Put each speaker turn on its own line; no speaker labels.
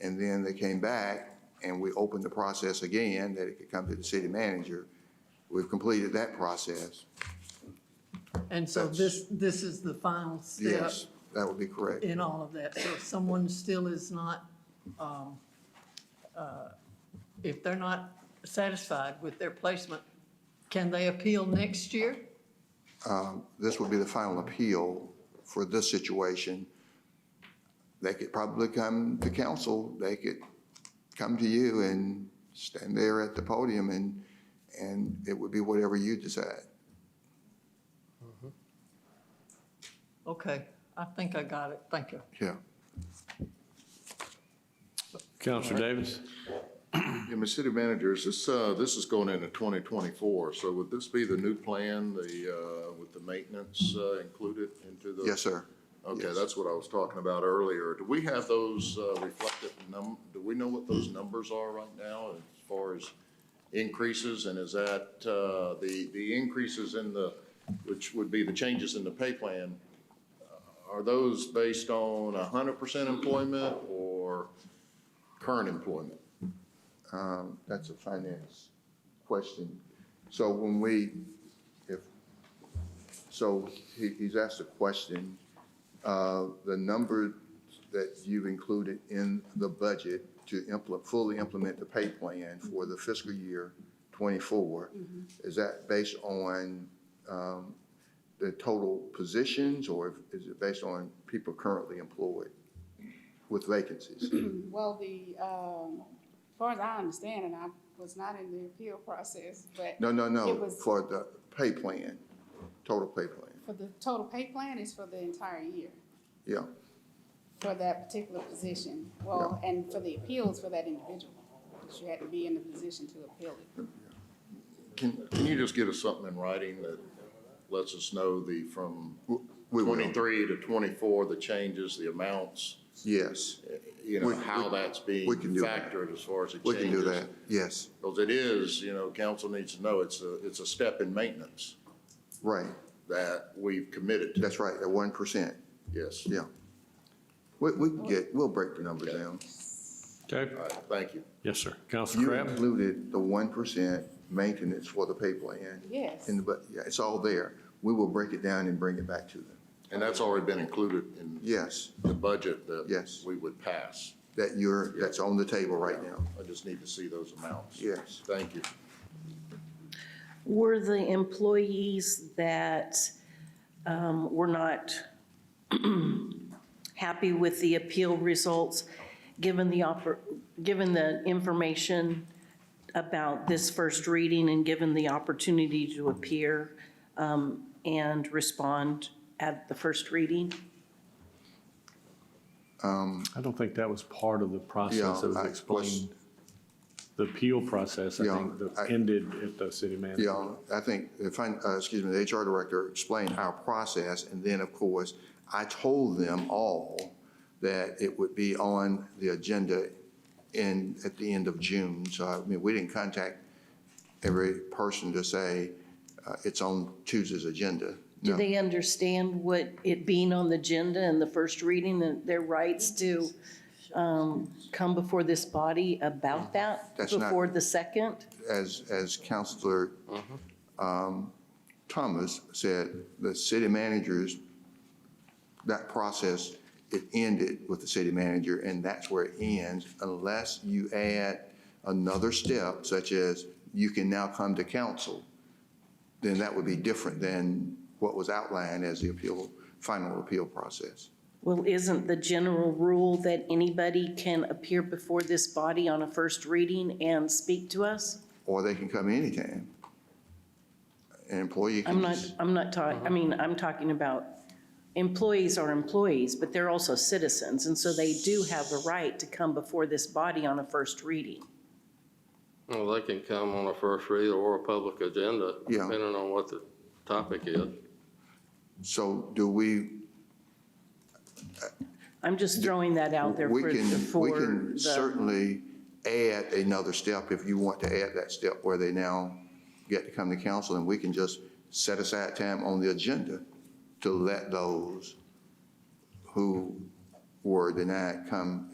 And then they came back and we opened the process again, that it could come to the city manager. We've completed that process.
And so
That's-
this, this is the final step
Yes, that would be correct.
in all of that. So if someone still is not, um, uh, if they're not satisfied with their placement, can they appeal next year?
Um, This would be the final appeal for this situation. They could probably come to council, they could come to you and stand there at the podium and, and it would be whatever you decide.
Okay, I think I got it. Thank you.
Yeah.
Counselor Davis?
Yeah, Ms. City Managers, this, uh, this is going into twenty twenty-four, so would this be the new plan, the, uh, with the maintenance, uh, included into the?
Yes, sir.
Okay,
yes.
that's what I was talking about earlier. Do we have those, uh, reflected num, do we know what those numbers are right now as far as increases? And is that, uh, the, the increases in the, which would be the changes in the pay plan, uh, are those based on hundred percent employment or current employment?
Um, That's a finance question. So when we, if, so he, he's asked a question. Uh, The number that you've included in the budget to implement, fully implement the pay plan for the fiscal year twenty-four, is that based on um, the total positions or is it based on people currently employed with vacancies?
Well, the, um, as far as I understand, and I was not in the appeal process, but
No, no,
It
no,
was-
for the pay plan, total pay plan,
for the total pay plan is for the entire year,
yeah.
for that particular position. Well, and for the appeals for that individual, because you had to be in the position to appeal it.
Can, can you just get us something in writing that lets us know the, from
we will.
twenty-three to twenty-four, the changes, the amounts,
Yes,
you know,
We-
how
we-
that's being
we can do that.
factored as far as the
we
changes?
can do that, yes,
Because it is, you know, council needs to know, it's a, it's a step in maintenance
right,
that we've committed to,
that's right, at one percent,
yes.
yeah. We, we can get, we'll break the numbers down.
Okay.
All right, thank you.
Yes, sir. Counselor
You
Crabb?
included the one percent maintenance for the pay plan.
Yes.
In the, but, yeah, it's all there, we will break it down and bring it back to them,
And that's already been included in
yes,
the budget that
Yes.
we would pass.
that you're, that's on the table right now,
I just need to see those amounts.
yes.
Thank you.
Were the employees that um, were not happy with the appeal results, given the, oppor- given the information about this first reading and given the opportunity to appear um, and respond at the first reading?
I don't think that was part of the
Yeah,
process
I-
that was
was-
explained. The appeal process, I
Yeah,
think, that
I-
ended at the city manager.
Yeah, I think, if I, uh, excuse me, the HR director explained our process, and then, of course, I told them all that it would be on the agenda in, at the end of June. So, I mean, we didn't contact every person to say, uh, it's on Tuesday's agenda.
Do
No.
they understand what it being on the agenda and the first reading and their rights to um, come before this body about that?
Mm. That's not-
Before the second?
as, as Counselor um, Thomas said, the city managers, that process, it ended with the city manager, and that's where it ends, unless you add another step, such as you can now come to council, then that would be different than what was outlined as the appeal, final appeal process.
Well, isn't the general rule that anybody can appear before this body on a first reading and speak to us?
Or they can come anytime. An employee can
I'm not,
just-
I'm not talking, I mean, I'm talking about employees are employees, but they're also citizens. And so they do have the right to come before this body on a first reading.
Well, they can come on a first read or a public agenda,
Yeah.
depending on what the topic is.
So do we
I'm just throwing that out there
We
for,
can,
for
we can
the,
certainly add another step if you want to add that step where they now get to come to council and we can just set aside time on the agenda to let those who were denied come